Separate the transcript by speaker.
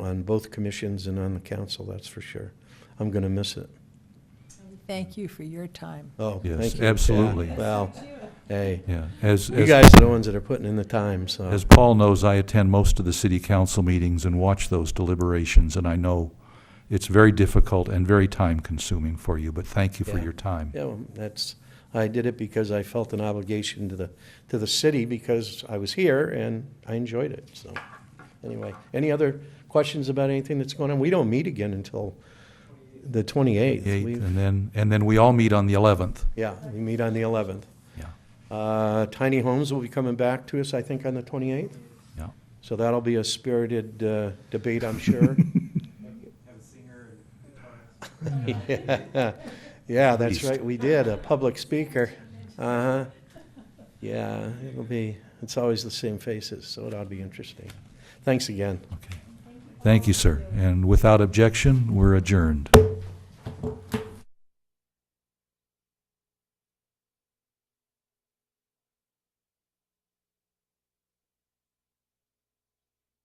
Speaker 1: on both commissions and on the council, that's for sure. I'm going to miss it.
Speaker 2: Thank you for your time.
Speaker 1: Oh, thank you.
Speaker 3: Yes,
Speaker 1: Yeah,
Speaker 3: absolutely.
Speaker 1: Well, hey,
Speaker 3: Yeah, as,
Speaker 1: you
Speaker 3: as-
Speaker 1: guys are the ones that are putting in the time, so.
Speaker 3: as Paul knows, I attend most of the city council meetings and watch those deliberations, and I know it's very difficult and very time-consuming for you, but thank you for
Speaker 1: Yeah.
Speaker 3: your time.
Speaker 1: Yeah, well, that's, I did it because I felt an obligation to the, to the city because I was here and I enjoyed it, so. Anyway, any other questions about anything that's going on? We don't meet again until the twenty-eighth.
Speaker 3: Eight, And then, and then we all meet on the 11th.
Speaker 1: Yeah, we meet on the eleventh.
Speaker 3: Yeah,
Speaker 1: Uh, Tiny Homes will be coming back to us, I think, on the 28th,
Speaker 3: yeah.
Speaker 1: so that'll be a spirited uh, debate, I'm sure. Yeah, Yeah, that's
Speaker 3: Beast.
Speaker 1: right, we did, a public speaker. Uh-huh. Yeah, it'll be, it's always the same faces, so it ought to be interesting. Thanks again.
Speaker 3: Okay. Thank you, sir. And without objection, we're adjourned.